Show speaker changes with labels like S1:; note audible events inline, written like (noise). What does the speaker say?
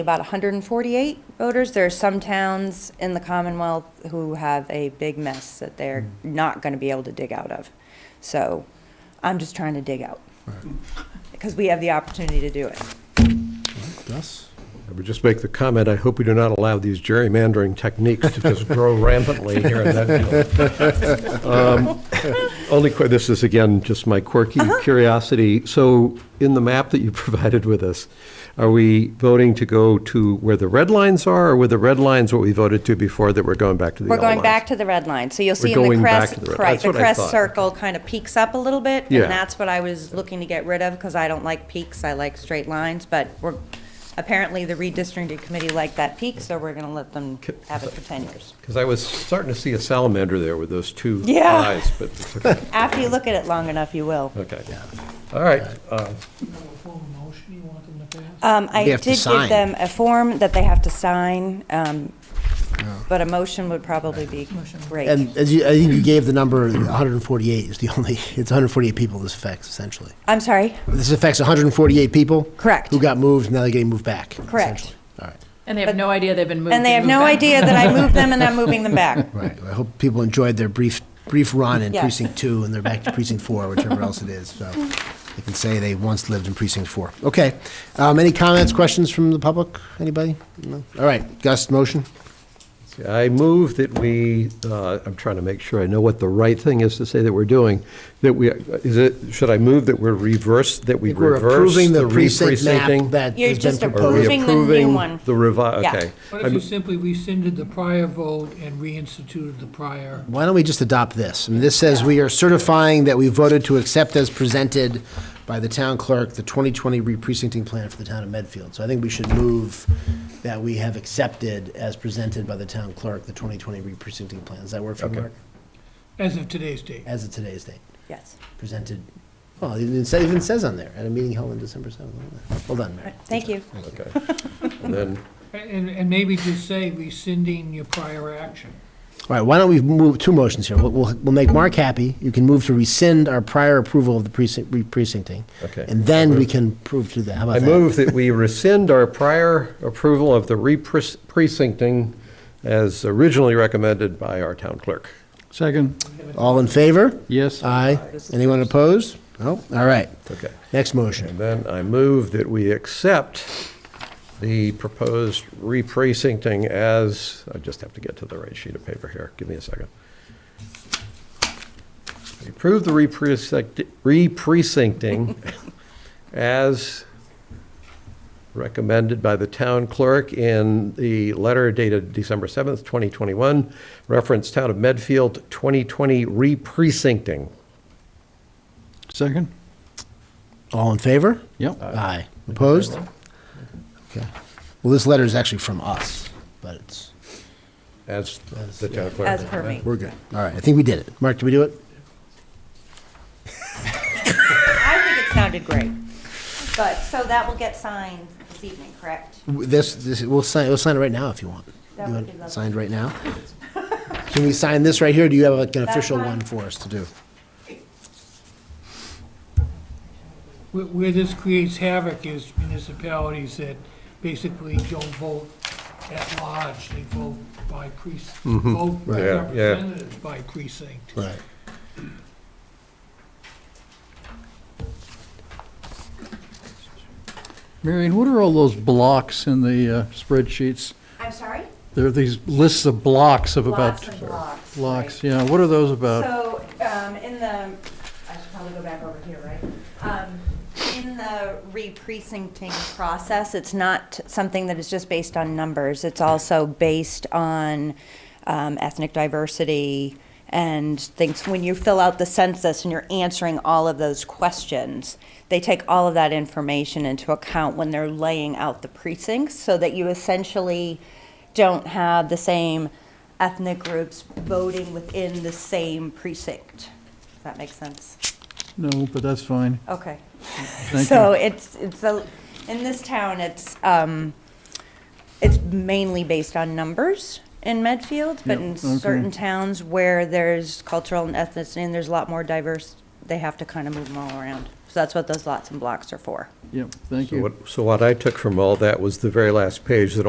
S1: about 148 voters. There are some towns in the Commonwealth who have a big mess that they're
S2: Mm.
S1: not going to be able to dig out of. So I'm just trying to dig out. Because we have the opportunity to do it.
S3: Gus?
S2: I would just make the comment, I hope we do not allow these gerrymandering techniques to just
S1: (laughs)
S2: grow rampantly here in Medfield. Um, Only, que- this is again, just my quirky
S1: Uh-huh.
S2: curiosity. So in the map that you (laughs) provided with us, are we voting to go to where the red lines are, or were the red lines what we voted to before that we're going back to the
S1: We're
S2: yellow lines?
S1: going back to the red line. So you'll see
S2: We're
S1: in the
S2: going back
S1: crest,
S2: to the red-
S1: right,
S2: that's
S1: the
S2: what I
S1: crest
S2: thought.
S1: circle kind of peaks up a little bit.
S2: Yeah.
S1: And that's what I was looking to get rid of because I don't like peaks. I like straight lines. But we're, apparently the redistricting committee liked that peak, so we're going to let them have it for 10 years.
S2: Because I was starting to see a salamander there with those two
S1: Yeah.
S2: eyes, but, it's okay.
S1: After you look at it long enough, you will.
S2: okay.
S1: (laughs)
S2: All right, uh,
S1: Um, I
S3: They have
S1: did
S3: to
S1: give
S3: sign.
S1: them a form that they have to sign, um, but a motion would probably be great.
S3: And as you, I think you gave the number, 148 is the only, it's 148 people this affects, essentially.
S1: I'm sorry,
S3: This affects 148 people?
S1: Correct.
S3: Who got moved, now they're getting moved back?
S1: Correct.
S3: essentially. All right,
S4: And they have no idea they've been moved.
S1: and they have
S4: moved
S1: no
S4: back.
S1: idea that I moved them and (laughs) I'm moving them back.
S3: right. I hope people enjoyed their brief, brief run in
S1: Yeah.
S3: precinct two, and they're back to precinct four, whichever else it is, so they can say they once lived in precinct four. Okay, um, any comments, questions from the public? Anybody? No? All right, Gus, motion?
S2: I move that we, uh, I'm trying to make sure I know what the right thing is to say that we're doing, that we, is it, should I move that we're reverse, that we
S3: We're
S2: reverse
S3: approving the
S2: the
S3: precinct map
S2: re-precincting?
S3: that
S1: You're
S3: has been
S1: just
S2: Are we
S3: proposed.
S1: Approving the new
S2: approving
S1: one.
S2: The revi,
S1: Yeah.
S2: okay.
S5: What if you simply rescinded the prior vote and reinstituted the prior?
S3: Why don't we just adopt this? I mean, this says we are certifying that we voted to accept as presented by the town clerk, the 2020 re-precincting plan for the town of Medfield. So I think we should move that we have accepted as presented by the town clerk, the 2020 re-precincting plan. Does that work for you,
S2: Okay.
S3: Mark?
S5: As of today's date.
S3: As of today's date,
S1: Yes.
S3: presented, well, it even says- even says on there, at a meeting held on December 7th. Well done, Mary.
S1: Thank you.
S2: Okay.
S3: (laughs)
S2: And then,
S5: And, and maybe just say rescinding your prior action.
S3: All right, why don't we move two motions here? We'll, we'll we'll make Mark happy. You can move to rescind our prior approval of the precinct, re-precincting.
S2: Okay.
S3: And then we can prove to that. How
S2: I
S3: about that?
S2: move that we rescind our prior approval of the re-precincting as originally recommended by our town clerk.
S6: Second,
S3: All in favor?
S6: yes.
S3: Aye. Anyone opposed? No? All right.
S2: Okay.
S3: Next motion.
S2: And then I move that we accept the proposed re-precincting as, I just have to get to the right sheet of paper here, give me a second. We Approve the re-precinct- re-precincting as recommended by the town clerk in the letter dated December 7th, 2021, reference Town of Medfield 2020 re-precincting.
S6: Second,
S3: All in favor?
S6: yep.
S3: Aye. Opposed? Okay. Well, this letter is actually from us, but it's,
S2: As the town clerk.
S1: As per me.
S3: we're good. All right, I think we did it. Mark, did we do it?
S1: I think it sounded great. But, so that will get signed this evening, correct?
S3: W- This, this, we'll sign, we'll sign it right now if you want.
S1: That would
S3: You want
S1: be
S3: it
S1: lovely.
S3: Signed right now? Can we sign this right here? Do you have like an
S1: That's
S3: official
S1: fine.
S3: one for us to do?
S5: Where, where this creates havoc is municipalities that basically don't vote at large, they vote by precinct, vote
S2: Mm-hmm.
S5: by
S2: Yeah, yeah.
S5: representatives by precinct.
S3: Right.
S6: Marion, what are all those blocks in the uh, spreadsheets?
S1: I'm sorry?
S6: There are these lists of blocks of about.
S1: Blocks and blocks,
S6: Blocks,
S1: right.
S6: yeah, what are those about?
S1: So, um, in the, I should probably go back over here, right? Um, In the re-precincting process, it's not something that is just based on numbers. It's also based on um, ethnic diversity and things. When you fill out the census and you're answering all of those questions, they take all of that information into account when they're laying out the precincts so that you essentially don't have the same ethnic groups voting within the same precinct. Does that make sense?
S6: No, but that's fine,
S1: Okay.
S6: thank
S1: So
S6: you.
S1: it's, it's, a in this town, it's, um, it's mainly based on numbers in Medfield, but
S6: Yep,
S1: in
S6: okay.
S1: certain towns where there's cultural and ethnicity and there's a lot more diverse, they have to kind of move them all around. So that's what those lots and blocks are for.
S6: Yep, thank
S2: So
S6: you.
S2: what- So what I took from all that was the very last page, that